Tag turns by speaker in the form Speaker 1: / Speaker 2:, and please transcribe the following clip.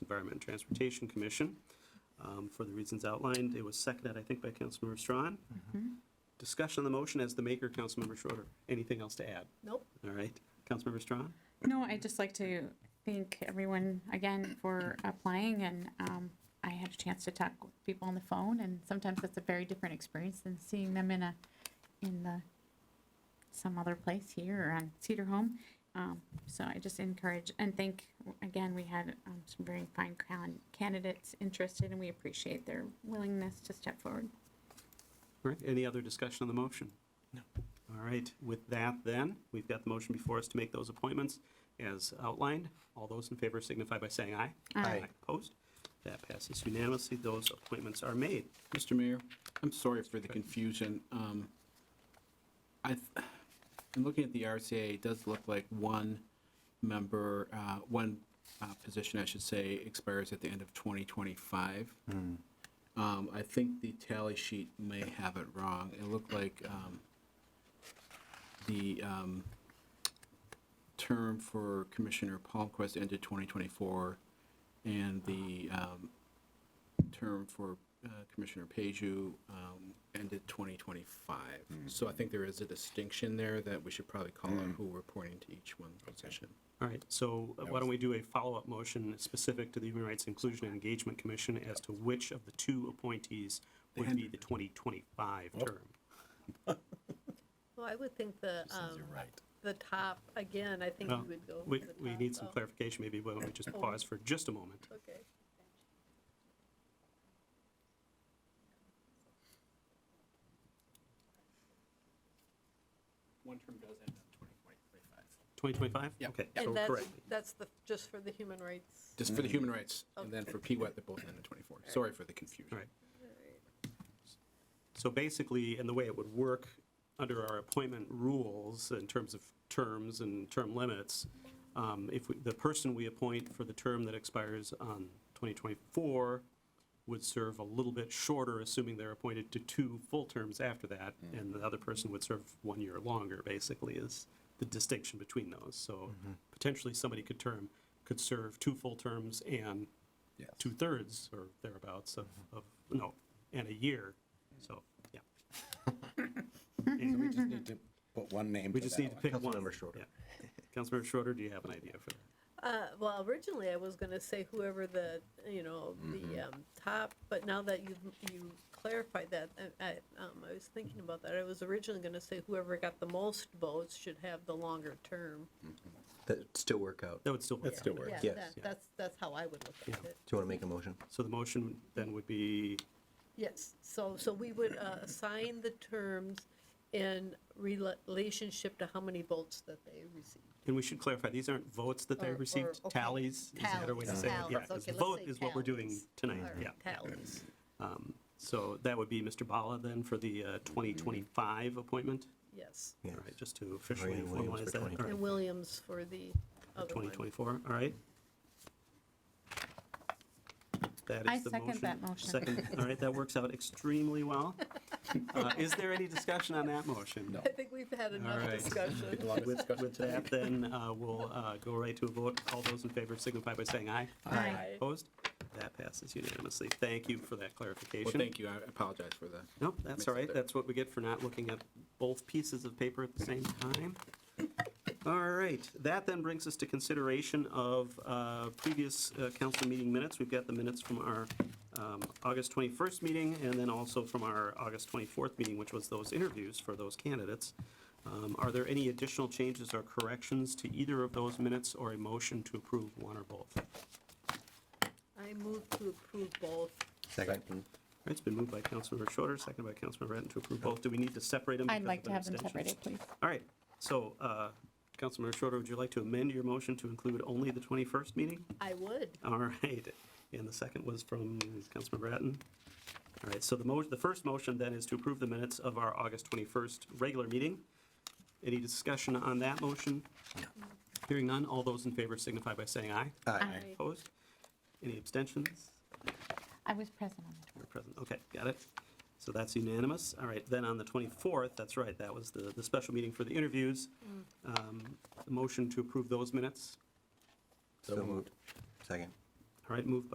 Speaker 1: Environment and Transportation Commission um, for the reasons outlined. It was seconded, I think, by Councilmember Strawn. Discussion on the motion as the maker, Councilmember Schroeder. Anything else to add?
Speaker 2: Nope.
Speaker 1: All right, Councilmember Strawn?
Speaker 3: No, I'd just like to thank everyone again for applying and um, I had a chance to talk with people on the phone and sometimes that's a very different experience than seeing them in a, in the, some other place here or on Cedar Home. Um, So I just encourage and thank, again, we had um, some very fine can- candidates interested and we appreciate their willingness to step forward.
Speaker 1: All right, any other discussion on the motion? No. All right, with that then, we've got the motion before us to make those appointments as outlined. All those in favor signify by saying aye.
Speaker 3: Aye.
Speaker 1: Opposed? That passes unanimously. Those appointments are made.
Speaker 4: Mr. Mayor, I'm sorry for the confusion. Um, I, th- in looking at the RCA, it does look like one member, uh, one uh, position, I should say, expires at the end of 2025. Um, I think the tally sheet may have it wrong. It looked like um, the um, term for Commissioner Palmquist ended 2024, and the um, term for uh, Commissioner Paju um, ended 2025.
Speaker 5: Hmm.
Speaker 4: So I think there is a distinction there that we should probably call out who we're pointing to each one position.
Speaker 1: All right, so uh, why don't we do a follow-up motion specific to the Human Rights Inclusion and Engagement Commission as to which of the two appointees would be the 2025 term?
Speaker 2: Well, I would think the, um, the top, again, I think
Speaker 1: Well,
Speaker 2: you would go.
Speaker 1: We,
Speaker 2: for the
Speaker 1: we
Speaker 2: top,
Speaker 1: need some
Speaker 2: though.
Speaker 1: clarification, maybe why don't we just pause for just a moment?
Speaker 2: Okay.
Speaker 4: One term does end up 2025.
Speaker 1: 2025?
Speaker 4: Yep.
Speaker 1: Okay, so
Speaker 2: And that's,
Speaker 1: Oh, correct.
Speaker 2: that's the, just for the human rights.
Speaker 4: Just
Speaker 5: Hmm.
Speaker 4: for the human rights, and then for PWET, they both end in 24. Sorry for the confusion.
Speaker 1: Right. So basically, and the way it would work under our appointment rules in terms of terms and term limits, um, if we- the person we appoint for the term that expires on 2024 would serve a little bit shorter, assuming they're appointed to two full terms after that, and the other person would serve one year longer, basically, is the distinction between those. So potentially, somebody could term, could serve two full terms and two-thirds or thereabouts of, of, no, and a year, so, yeah.
Speaker 5: We just need to put one name.
Speaker 1: We just need to pick one.
Speaker 5: Councilmember Schroeder.
Speaker 1: Yeah. Councilmember Schroeder, do you have an idea for that?
Speaker 2: Uh, well, originally I was gonna say whoever the, you know, the,
Speaker 5: Mm-hmm.
Speaker 2: um, top, but now that you, you clarified that, I, I, um, I was thinking about that. I was originally gonna say whoever got the most votes should have the longer term.
Speaker 6: That still work out.
Speaker 1: That would still.
Speaker 5: That still works,
Speaker 2: Yeah,
Speaker 6: yes.
Speaker 2: that- That's, that's how I would look at it.
Speaker 6: Do you want to make a motion?
Speaker 1: So the motion then would be,
Speaker 2: Yes, so, so we would uh, assign the terms in rela- relationship to how many votes that they received.
Speaker 1: and we should clarify, these aren't votes that they
Speaker 2: Or- or-
Speaker 1: received,
Speaker 2: okay.
Speaker 1: tallies? is the better way to
Speaker 2: Tallies,
Speaker 1: say it. Yeah,
Speaker 2: tallies.
Speaker 1: 'cause the
Speaker 2: Okay, let's
Speaker 1: Vote
Speaker 2: say
Speaker 1: is what we're doing
Speaker 2: tallies.
Speaker 1: tonight,
Speaker 2: Or
Speaker 1: yeah.
Speaker 2: Tallies.
Speaker 1: So that would be Mr. Bala then for the uh, 2025 appointment?
Speaker 2: Yes,
Speaker 6: Yeah.
Speaker 1: All right, just to officially
Speaker 6: Marianne Williams
Speaker 1: formalize
Speaker 6: for
Speaker 1: that. All right.
Speaker 6: 2025.
Speaker 2: and Williams for the other one.
Speaker 1: 2024, all right? That is
Speaker 3: I
Speaker 1: the
Speaker 3: second that motion.
Speaker 1: Second, all right, that works out extremely well. Uh, Is there any discussion on that motion?
Speaker 2: I think we've had enough
Speaker 1: right.
Speaker 2: discussion.
Speaker 1: With with that, then uh, we'll uh, go right to a vote. All those in favor signify by saying aye.
Speaker 2: Aye.
Speaker 1: Opposed? That passes unanimously. Thank you for that
Speaker 4: Well,
Speaker 1: clarification.
Speaker 4: thank you. I apologize for the.
Speaker 1: Nope, that's all right.
Speaker 4: Mixed up.
Speaker 1: That's what we get for not looking at both pieces of paper at the same time. All right, that then brings us to consideration of uh, previous uh, council meeting minutes. We've got the minutes from our um, August 21st meeting and then also from our August 24th meeting, which was those interviews for those candidates. Um, Are there any additional changes or corrections to either of those minutes or a motion to approve one or both? All
Speaker 2: I move to approve both.
Speaker 6: Second.
Speaker 1: right, It's been moved by Councilmember Schroeder, seconded by Councilmember Ratten to approve both. Do we need to separate them?
Speaker 3: I'd
Speaker 1: because
Speaker 3: like
Speaker 1: of
Speaker 3: to
Speaker 1: an
Speaker 3: have them
Speaker 1: abstention?
Speaker 3: separated, please.
Speaker 1: All right, so, uh, Councilmember Schroeder, would you like to amend your motion to include only the 21st meeting?
Speaker 2: I would.
Speaker 1: All right, and the second was from Councilmember Bratton. All right, so the mo, the first motion then is to approve the minutes of our August 21st regular meeting. Any discussion on that motion? Hearing none, all those in favor signify by saying aye.
Speaker 6: Aye.
Speaker 2: Aye.
Speaker 1: Opposed? Any abstentions?
Speaker 3: I was present on the
Speaker 1: You're present, okay, got it. So that's unanimous. All right, then on the 24th, that's right, that was the, the special meeting for the interviews. Um, the Motion to approve those minutes.
Speaker 6: So moved. Second.
Speaker 1: All right, moved by